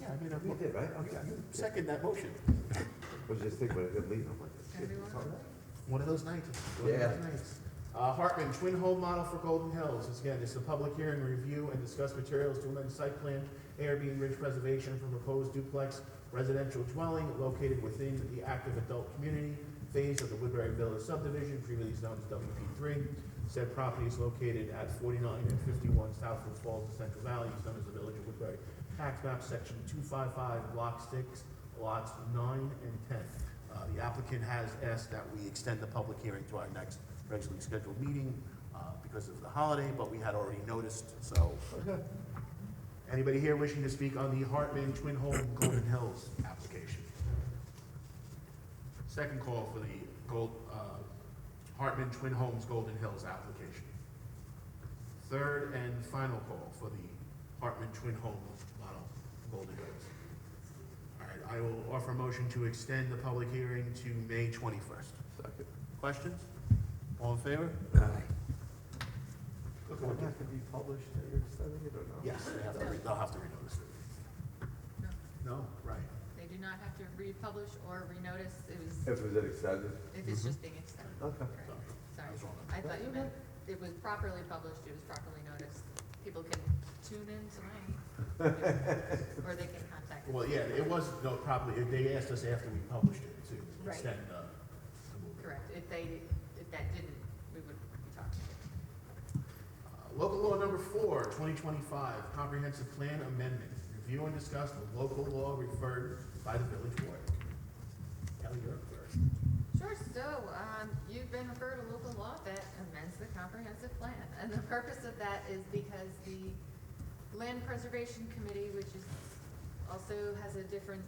No, you did, right? Okay. Second that motion. I was just thinking, but I didn't leave. I'm like, One of those nights. One of those nights. Uh, Hartman, twin home model for Golden Hills. This, Again, this is a public hearing, review and discuss materials to amend site plan, ARB ridge preservation for proposed duplex residential dwelling located within the active adult community phase of the Woodbury Village subdivision, previously known as WP three. Said property is located at forty-nine and fifty-one Southwood Falls in Central Valley, is known as the Village of Woodbury. Tax map section two five five, block six, lots nine and ten. Uh, The applicant has asked that we extend the public hearing to our next regularly scheduled meeting uh, because of the holiday, but we had already noticed, so. Anybody here wishing to speak on the Hartman Twin Home Golden Hills application? Second call for the Gold, uh, Hartman Twin Homes Golden Hills application. Third and final call for the Hartman Twin Home Model Golden Hills. All right, I will offer a motion to extend the public hearing to May 21st. Second. Questions? All in favor? Does it have to be published that you're extending it or no? Yes, they have to re- they'll have to renotice it. No, No, right. They do not have to republish or renotice, it was, If it was extended? if Mm-hmm. it's just being extended. Okay. Right. Sorry, I was Sorry, wrong. I thought you meant it was properly published, it was properly noticed. People can tune in tonight. Or they can contact us. Well, yeah, it was, no, probably, they asked us after we published it to Right. extend uh, the movement. Correct, if they, if that didn't, we would be talking. Uh, Local law number four, 2025, comprehensive plan amendment. Review and discuss the local law referred by the village board. Kelly, you're up first. Sure, so, um, you've been referred a local law that amends the comprehensive plan, and the purpose of that is because the Land Preservation Committee, which is, also has a different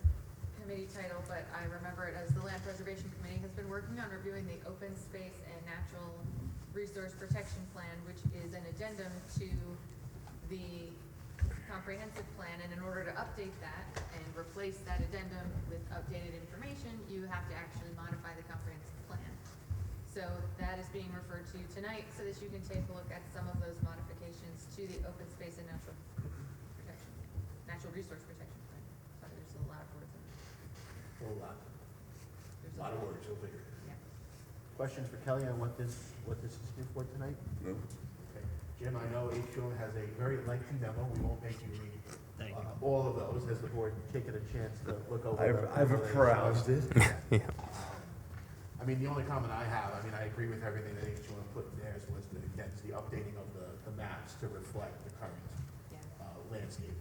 committee title, but I remember it as the Land Preservation Committee, has been working on reviewing the Open Space and Natural Resource Protection Plan, which is an addendum to the comprehensive plan, and in order to update that and replace that addendum with updated information, you have to actually modify the comprehensive plan. So that is being referred to tonight, so that you can take a look at some of those modifications to the open space and natural protection, natural resource protection plan. Sorry, there's a lot of words in there. Whole lot, There's lot of words, you'll figure it out. Yeah. Questions for Kelly on what this, what this is here for tonight? No. Okay. Jim, I know each one has a very lengthy memo, we won't make you read uh, all of those, has the board taken a chance to look over? them? it. I mean, the only comment I have, I mean, I agree with everything that each one put in theirs was the, again, it's the updating of the, the maps to reflect the current Yeah. uh, landscape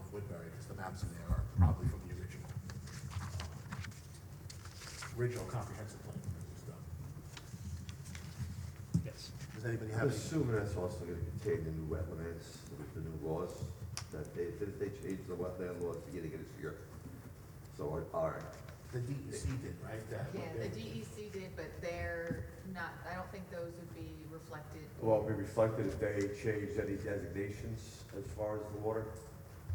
of Woodbury, because the maps in there are probably from the original, uh, original comprehensive plan. Yes. Does anybody I'm have any? assuming that's also gonna contain the new wetlands, the new laws, that they, did they change the wetland laws beginning of this year? So our, our, The DEC did, right? That- Yeah, the E DEC did, but they're not, I don't think those would be reflected. Well, it'd be reflected if they changed any designations as far as the water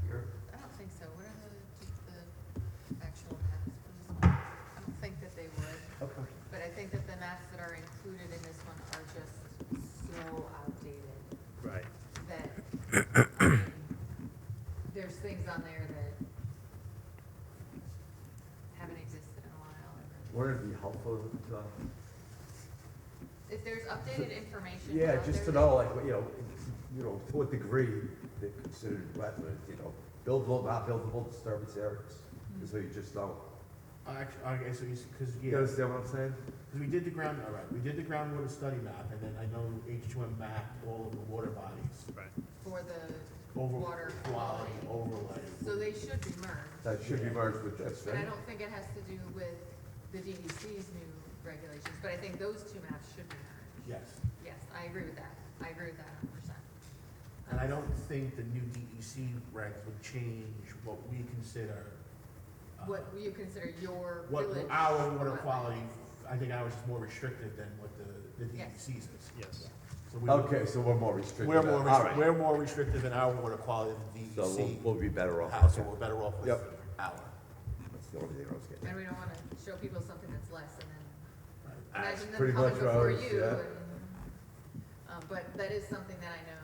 here. I don't think so. What are the, just the actual maps for this one? I don't think that they would, Okay. but I think that the maps that are included in this one are just so outdated Right. that, I mean, there's things on there that haven't existed in a while. Wouldn't it be helpful to, uh, If there's updated information yeah, out just to there know, like, you know, you know, to what degree they're considered wetland, you know, buildable, not buildable disturbance areas, so you just don't. Uh, Actually, okay, so you, because, yeah. You understand what I'm saying? Because we did the ground, all right, we did the groundwater study map, and then I know H two M mapped all of the water bodies. Right. for the over water Quality quality. overlay. So they should be merged. That should be merged with this, But I right? don't think it has to do with the DEC's new regulations, but I think those two maps should be merged. Yes, Yes, I agree with that. I agree with that a hundred percent. and I don't think the new DEC regs would change what we consider. uh, What you consider your What village. our water wetland. quality, I think ours is more restrictive than what the, the Yes. DEC's is. Yes. So we would- Okay, so we're more restricted. We're more, All restri- right. we're more restrictive in our water quality So than we'll, we'll DEC, be better off. uh, so we're better off with Yep. our. That's the only thing I was getting. And we don't wanna show people something that's less and then right? imagine them pretty coming much before ours, you yeah. and, um, but that is something that I know